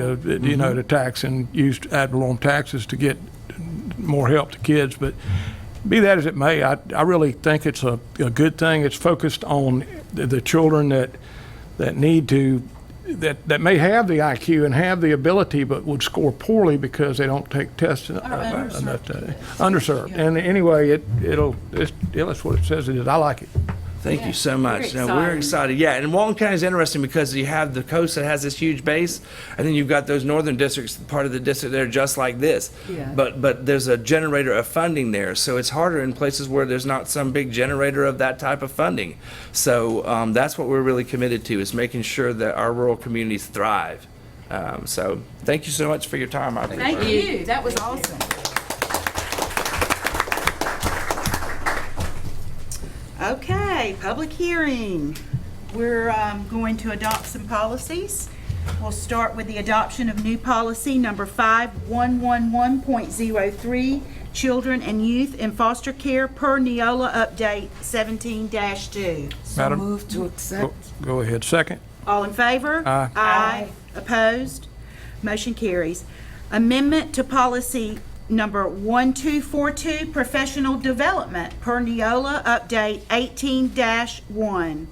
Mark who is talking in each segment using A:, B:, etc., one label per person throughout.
A: to, uh, you know, to tax and use ad valorem taxes to get more help to kids. But be that as it may, I, I really think it's a, a good thing. It's focused on the, the children that, that need to, that, that may have the IQ and have the ability, but would score poorly because they don't take tests. Are
B: underserved
A: Underserved. And anyway, it, it'll, it's, yeah, that's what it says it is. I like it.
C: Thank you so much.
B: We're
C: Now, we're
B: excited.
C: excited. Yeah, and Walton County is interesting because you have the coast that has this huge base, and then you've got those northern districts, part of the district that are just like this.
B: Yeah.
C: But but there's a generator of funding there, so it's harder in places where there's not some big generator of that type of funding. So um, that's what we're really committed to is making sure that our rural communities thrive. Um, so thank you so much for your time. I appreciate
B: Thank
C: it.
B: you, that was awesome.
D: Okay, public hearing. We're um, going to adopt some policies. We'll start with the adoption of new policy number 5111.03, children and youth in foster care per Neola update 17-2.
A: Madam-
B: Move to accept.
A: Go- Go ahead. Second.
D: All in favor?
A: Aye.
D: Aye. Opposed? Motion carries. Amendment to policy number 1242, professional development per Neola update 18-1.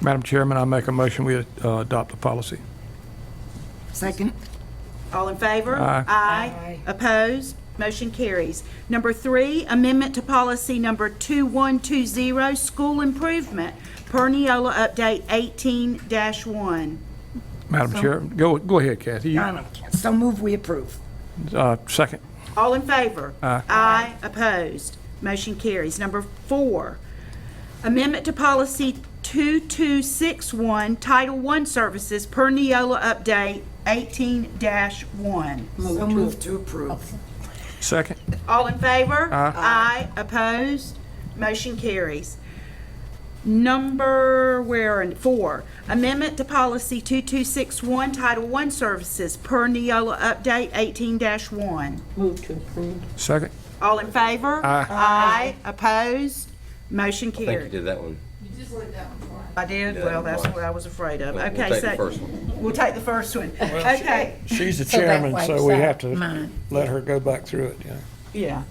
A: Madam Chairman, I make a motion we uh, adopt the policy.
B: Second.
D: All in favor?
A: Aye.
D: Aye. Opposed? Motion carries. Number three, amendment to policy number 2120, school improvement, per Neola update 18-1.
A: Madam Chair, go, go ahead, Kathy.
B: Um,
A: You-
B: So move, we approve.
A: uh, Second.
D: All in favor? Aye. opposed. Motion carries. Number four, amendment to policy 2261, Title I Services per Neola update 18-1.
B: So move to approve.
A: Second.
D: All in favor? Aye. opposed. Motion carries. Number, where, in- four, amendment to policy 2261, Title I Services per Neola update 18-1.
A: Second.
D: All in favor? Aye. Aye, opposed, motion
E: I think you
D: carried.
E: did that one.
D: I did, well, that's what I was afraid of.
E: We'll
D: Okay,
E: take
D: so
E: the first one.
D: We'll take the first one. Okay,
A: She's the
B: that
A: chairman,
B: wipes
A: so we
B: out
A: have to
B: mine.
A: let her go back through it, yeah.
D: yeah.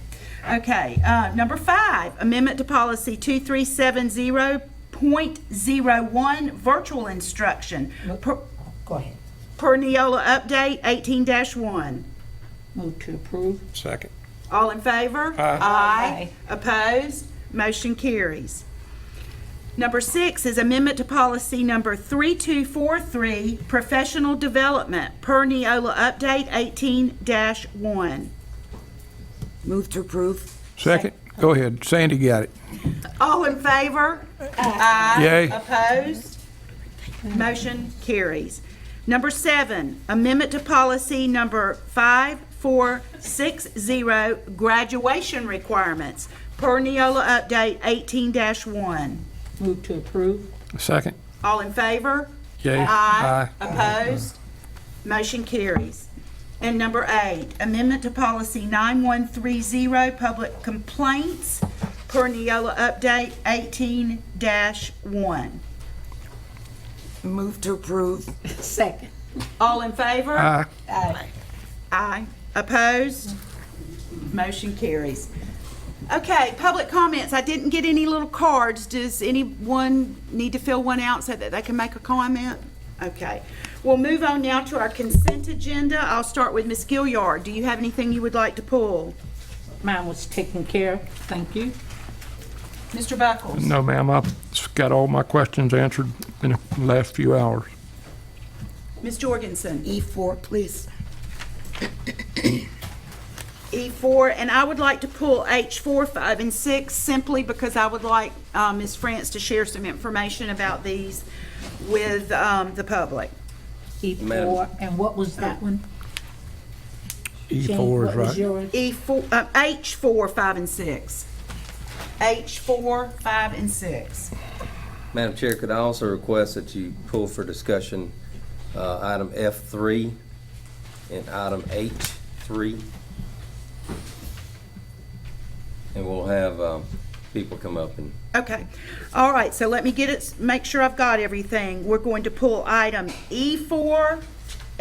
D: Okay, uh, number five, amendment to policy 2370.01, virtual instruction, per
B: Go ahead.
D: per Neola update 18-1.
B: Move to approve.
A: Second.
D: All in favor? Aye. Opposed? Motion carries. Number six is amendment to policy number 3243, professional development, per Neola update 18-1.
B: Move to approve.
A: Second. Go ahead. Sandy got it.
D: All in favor? Aye.
A: Yay.
D: Opposed? Motion carries. Number seven, amendment to policy number 5460, graduation requirements, per Neola update 18-1.
B: Move to approve.
A: Second.
D: All in favor?
A: Yay.
D: Aye. Opposed? Motion carries. And number eight, amendment to policy 9130, public complaints, per Neola update 18-1.
B: Move to approve. Second.
D: All in favor?
A: Aye.
D: Aye. Opposed? Motion carries. Okay, public comments. I didn't get any little cards. Does anyone need to fill one out so that they can make a comment? Okay. We'll move on now to our consent agenda. I'll start with Ms. Gilliard. Do you have anything you would like to pull?
F: Mine was taken care of, thank you.
D: Mr. Buckles?
A: No, ma'am, I've got all my questions answered in the last few hours.
D: Ms. Jorgensen? E
F: E4, please.
D: E4, E and I would like to pull H4, 5, and 6 simply because I would like uh, Ms. France to share some information about these with um, the public.
F: E4, E and what was that one? Jane,
A: E4 is
F: what was
A: E right.
F: yours?
D: E4, uh, H4, 5, and 6. H4, 5, and 6.
E: Madam Chair, could I also request that you pull for discussion uh, item F3 and item H3? And we'll have um, people come up and
D: Okay, E all right, so let me get it, make sure I've got everything. We're going to pull item E4,